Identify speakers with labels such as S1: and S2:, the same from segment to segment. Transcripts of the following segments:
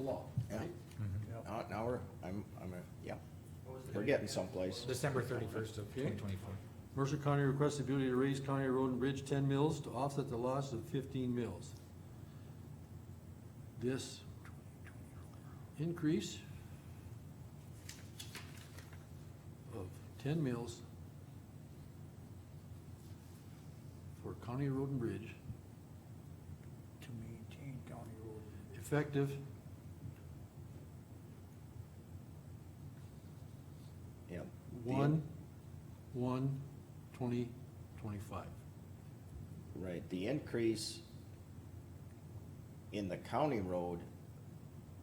S1: law.
S2: Yeah. Now, now we're, I'm, I'm, a- yeah, we're getting someplace.
S3: December thirty-first of
S4: Okay.
S3: twenty twenty-four.
S4: Mercer County requests the ability to raise county road and bridge ten mills to offset the loss of fifteen mills. This increase of ten mills for county road and bridge
S5: to maintain county road.
S4: effective
S2: Yeah.
S4: one, one, twenty, twenty-five.
S2: Right, the increase in the county road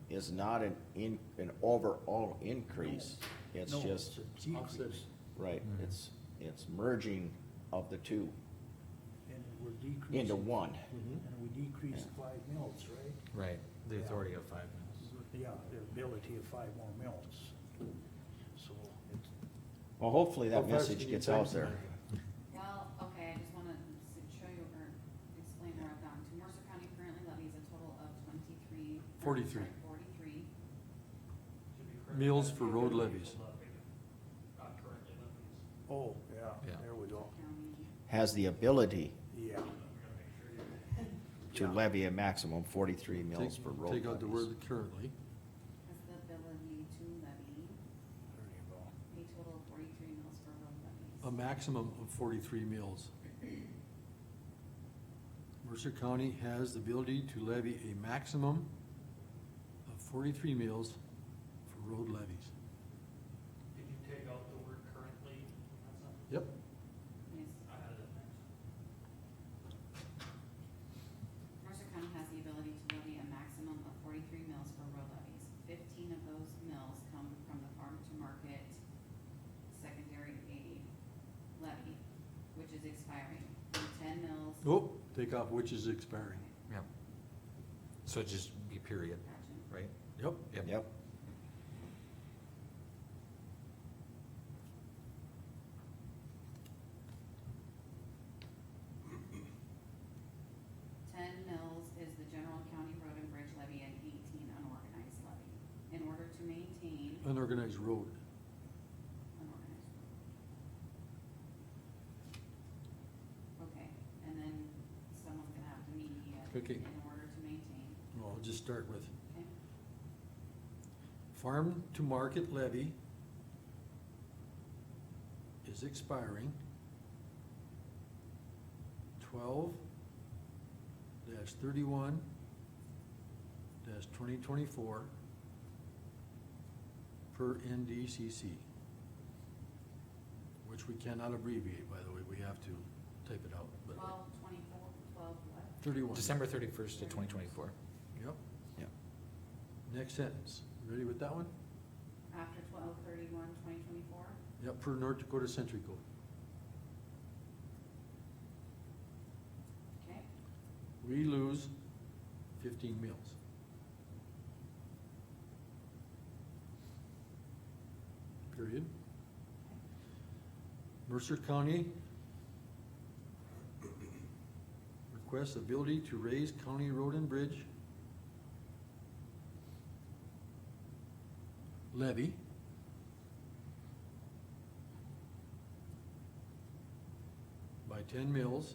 S2: is not an in, an overall increase. It's
S5: No,
S2: just,
S5: it's a Decrease,
S1: Offset.
S2: right,
S4: Mm-hmm.
S3: Mhm.
S2: it's, it's merging of the two
S5: and we're decreasing.
S2: into one.
S5: And we decreased
S2: Yeah.
S5: five mills, right?
S3: Right, the
S5: Yeah.
S3: authority of five mills.
S5: Yeah, the ability of five more mills. So it's,
S2: Well, hopefully
S4: How
S2: that
S4: fast can
S2: message
S4: you
S2: gets
S4: type
S2: out there.
S4: something?
S6: Well, okay, I just wanna s- show you or explain where I've gone to. Mercer County currently levies a total of twenty-three. or,
S4: Forty-three.
S6: sorry, Forty-three.
S4: Mills for road levies.
S5: oh, yeah,
S3: Yeah.
S5: there we go,
S6: County,
S2: Has the ability
S5: yeah.
S2: to
S5: Yeah.
S2: levy a maximum forty-three mills
S4: Take-
S2: for road
S4: Take out the
S2: levies.
S4: word currently.
S6: has the ability to levy
S5: There you go.
S6: a total of forty-three mills for road levies.
S4: a maximum of forty-three mills. Mercer County has the ability to levy a maximum of forty-three mills for road levies.
S7: Did you take out the word currently? That's not-
S4: Yep.
S6: Yes.
S7: I had it.
S6: Mercer County has the ability to levy a maximum of forty-three mills for road levies. Fifteen of those mills come from the farm to market secondary aid levy, which is expiring. And Ten mills.
S4: Oh, take off which is expiring.
S3: Yep. So it'd just be period,
S6: Gotcha.
S3: right?
S4: Yep.
S2: Yep,
S6: Ten mills is the general county road and bridge levy and eighteen unorganized levy. In order to maintain
S4: Unorganized road.
S6: unorganized. Okay, and then someone's gonna have to mediate
S4: Okay.
S6: in order to maintain,
S4: Well, I'll just start with
S6: okay?
S4: farm to market levy is expiring. Twelve dash thirty-one dash twenty twenty-four per NDCC. Which we cannot abbreviate, by the way, we have to type it out, but
S6: Twelve, twenty-four, twelve what?
S4: thirty-one.
S3: December thirty-first to twenty twenty-four.
S4: Yep,
S2: yep.
S4: next sentence, ready with that one?
S6: After twelve thirty-one, twenty twenty-four?
S4: Yep, per North Dakota Century Code.
S6: Okay,
S4: we lose fifteen mills. Period. Mercer County requests ability to raise county road and bridge levy by ten mills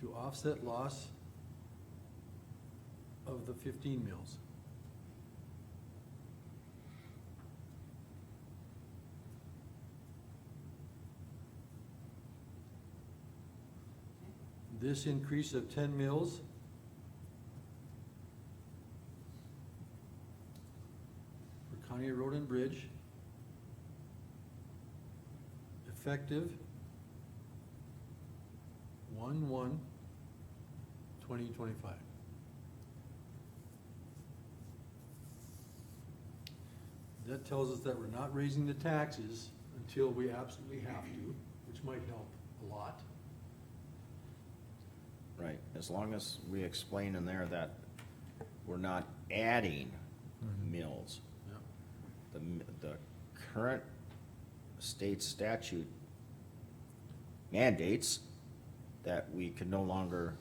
S4: to offset loss of the fifteen mills.
S6: okay.
S4: This increase of ten mills for County Road and Bridge effective one one twenty twenty-five. That tells us that we're not raising the taxes until we absolutely have to, which might help a lot.
S2: Right, as long as we explain in there that we're not adding
S3: Mhm.
S2: mills.
S4: Yep.
S2: The, m- the current state statute mandates that we can no longer